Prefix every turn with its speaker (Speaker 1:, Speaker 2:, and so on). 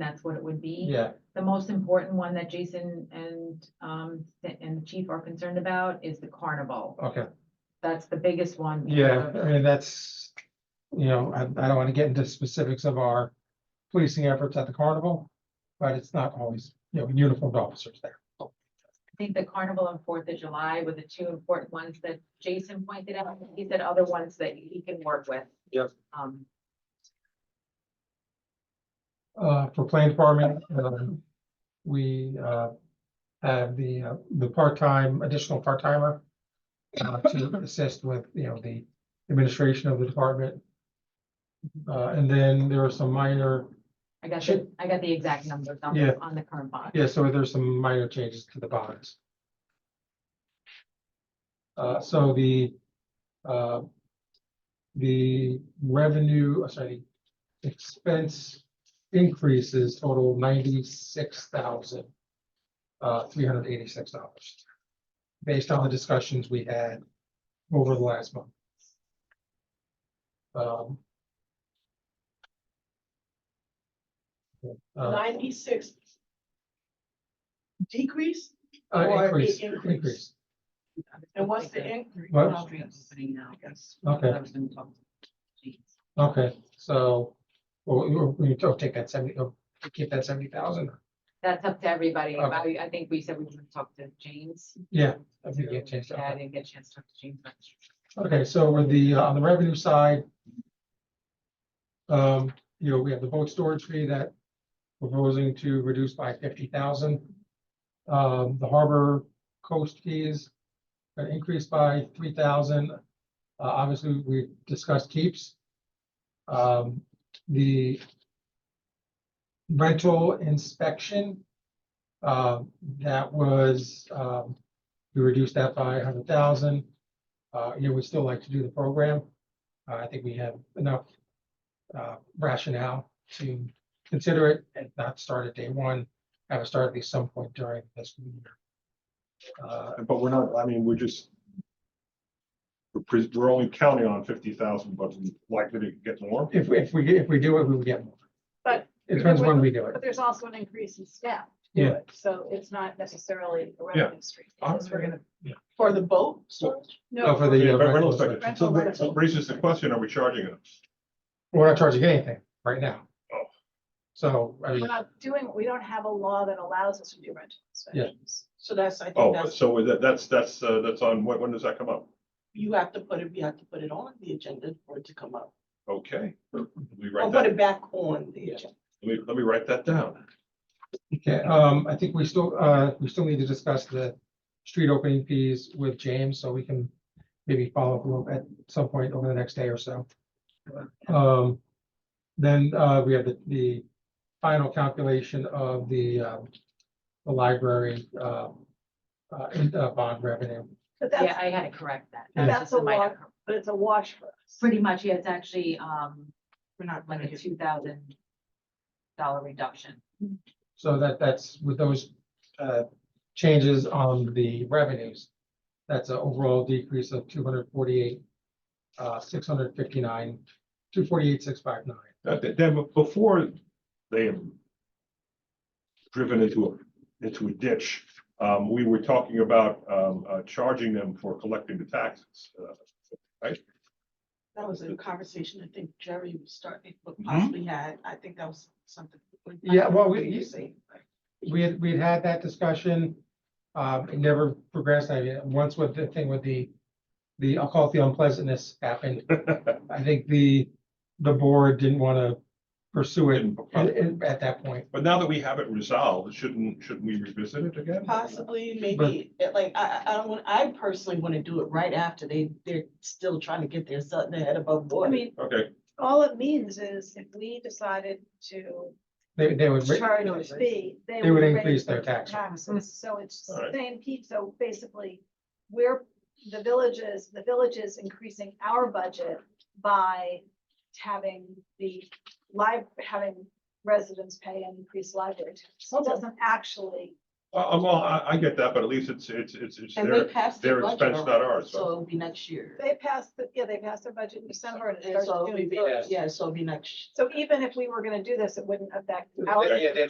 Speaker 1: that's what it would be.
Speaker 2: Yeah,
Speaker 1: The most important one that Jason and, um, and the chief are concerned about is the carnival.
Speaker 2: okay,
Speaker 1: That's the biggest one. because
Speaker 2: yeah,
Speaker 1: of-
Speaker 2: I mean, that's, you know, I, I don't want to get into specifics of our policing efforts at the carnival, but it's not always, you know, uniformed officers there.
Speaker 1: I think the carnival and Fourth of July were the two important ones that Jason pointed out. He said other ones that he can work with.
Speaker 2: Yep.
Speaker 1: Um,
Speaker 2: Uh, for plant farming, um, we, uh, have the, uh, the part-time, additional part-timer uh, to assist with, you know, the administration of the department. Uh, and then there are some minor
Speaker 1: I got, the
Speaker 2: Should-
Speaker 1: I got the exact numbers on,
Speaker 2: Yeah.
Speaker 1: on the current bond.
Speaker 2: Yeah, so there's some minor changes to the bonds. Uh, so the, uh, the revenue, uh, sorry, expense increases total ninety-six thousand, uh, three hundred eighty-six dollars. Based on the discussions we had over the last month. Um, uh,
Speaker 3: Ninety-six. Decrease,
Speaker 2: Uh,
Speaker 3: Or
Speaker 2: increase,
Speaker 3: the increase.
Speaker 2: increase.
Speaker 3: and what's the increase?
Speaker 2: What?
Speaker 4: Opening now, I guess.
Speaker 2: Okay.
Speaker 4: I was gonna talk to-
Speaker 2: Okay, so, well, you, you don't take that seventy, oh, keep that seventy thousand.
Speaker 1: That's up to everybody.
Speaker 2: Okay.
Speaker 1: I, I think we said we were gonna talk to James.
Speaker 2: Yeah. I think you changed
Speaker 1: Yeah, I
Speaker 2: that.
Speaker 1: didn't get a chance to talk to James. but-
Speaker 2: Okay, so with the, uh, on the revenue side. Um, you know, we have the boat storage fee that we're proposing to reduce by fifty thousand. Um, the harbor coast fees are increased by three thousand. Uh, obviously, we discussed keeps. Um, the rental inspection, uh, that was, um, we reduced that by a hundred thousand. Uh, you know, we'd still like to do the program. Uh, I think we have enough uh, rationale to consider it and not start at day one, have it start at least some point during this year. Uh,
Speaker 5: But we're not, I mean, we're just. We're, pres- we're only counting on fifty thousand, but we're likely to get more.
Speaker 2: If, if we, if we do it, we will get more.
Speaker 3: But-
Speaker 2: It depends when we do it.
Speaker 3: But there's also an increase in staff. to
Speaker 2: Yeah.
Speaker 3: it, So it's not necessarily a revenue stream. because we're gonna-
Speaker 2: Yeah.
Speaker 3: For the boat?
Speaker 5: So-
Speaker 2: Uh, For the,
Speaker 5: Yeah,
Speaker 2: uh,
Speaker 5: but rental
Speaker 2: rental
Speaker 5: inspection.
Speaker 2: inspection.
Speaker 5: So that so raises the question, are we charging them?
Speaker 2: we're not charging anything right now.
Speaker 5: Oh.
Speaker 2: So, I mean,
Speaker 3: We're not doing, we don't have a law that allows us to do rental inspections.
Speaker 6: So that's, I think
Speaker 5: Oh,
Speaker 6: that's,
Speaker 5: so that, that's, that's, uh, that's on, when, when does that come up?
Speaker 6: you have to put it, you have to put it on the agenda for it to come up.
Speaker 5: Okay. We
Speaker 6: Or
Speaker 5: write
Speaker 6: put
Speaker 5: that,
Speaker 6: it back on the agenda.
Speaker 5: let me, let me write that down.
Speaker 2: okay, um, I think we still, uh, we still need to discuss the street opening fees with James, so we can maybe follow up a little at some point over the next day or so. Um, then, uh, we have the, the final calculation of the, um, the library, uh, uh, in- uh, bond revenue.
Speaker 3: But
Speaker 1: Yeah,
Speaker 3: that's,
Speaker 1: I had to correct that.
Speaker 2: Yeah.
Speaker 1: That was
Speaker 3: That's
Speaker 1: just
Speaker 3: a
Speaker 1: minor
Speaker 3: lot.
Speaker 1: cor-
Speaker 3: but it's a wash for us.
Speaker 1: Pretty much, yeah, it's actually, um,
Speaker 6: We're not
Speaker 1: like
Speaker 6: gonna
Speaker 1: a
Speaker 6: do-
Speaker 1: two thousand dollar reduction.
Speaker 2: So that, that's with those, uh, changes on the revenues. That's an overall decrease of two hundred forty-eight, uh, six hundred fifty-nine, two forty-eight, six five nine.
Speaker 5: Uh, th- Then be- before they have driven into a, into a ditch, um, we were talking about, um, uh, charging them for collecting the taxes. Uh,
Speaker 6: That was a conversation I think Jerry was starting, but
Speaker 5: Mm-hmm.
Speaker 6: possibly had, I think that was something.
Speaker 2: Yeah, well, we-
Speaker 6: You say,
Speaker 2: We had, we had had that discussion, um, it never progressed, I mean, once with the thing with the, the, I'll call it the unpleasantness happened. I think the, the board didn't wanna pursue it at, at- at that point.
Speaker 5: But now that we have it resolved, shouldn't, shouldn't we revisit it again?
Speaker 6: possibly, maybe, it- like, I, I, I don't want, I personally want to do it right after they, they're still trying to get their something head above
Speaker 3: I
Speaker 6: water.
Speaker 3: mean,
Speaker 5: Okay,
Speaker 3: all it means is if we decided to
Speaker 2: They, they would,
Speaker 3: charge a fee, they
Speaker 2: They would
Speaker 3: raise
Speaker 2: increase their tax rate.
Speaker 3: Taxes, so it's
Speaker 5: All right.
Speaker 3: same piece, so basically, we're, the villages, the village is increasing our budget by having the live, having residents pay an increased library tax. So it doesn't actually
Speaker 5: Uh, well, I, I get that, but at least it's, it's, it's, it's
Speaker 6: And they
Speaker 5: their,
Speaker 6: passed
Speaker 5: their
Speaker 6: their budget
Speaker 5: expense, not
Speaker 6: already,
Speaker 5: ours,
Speaker 6: So
Speaker 5: so.
Speaker 6: it'll be next year.
Speaker 3: They passed, the- yeah, they passed their budget in December and it
Speaker 6: And
Speaker 3: starts
Speaker 6: so it'll
Speaker 3: June
Speaker 6: be,
Speaker 3: first.
Speaker 6: yeah, so it'll be next,
Speaker 3: So even if we were gonna do this, it wouldn't affect our.
Speaker 5: Yeah,
Speaker 7: yeah, that's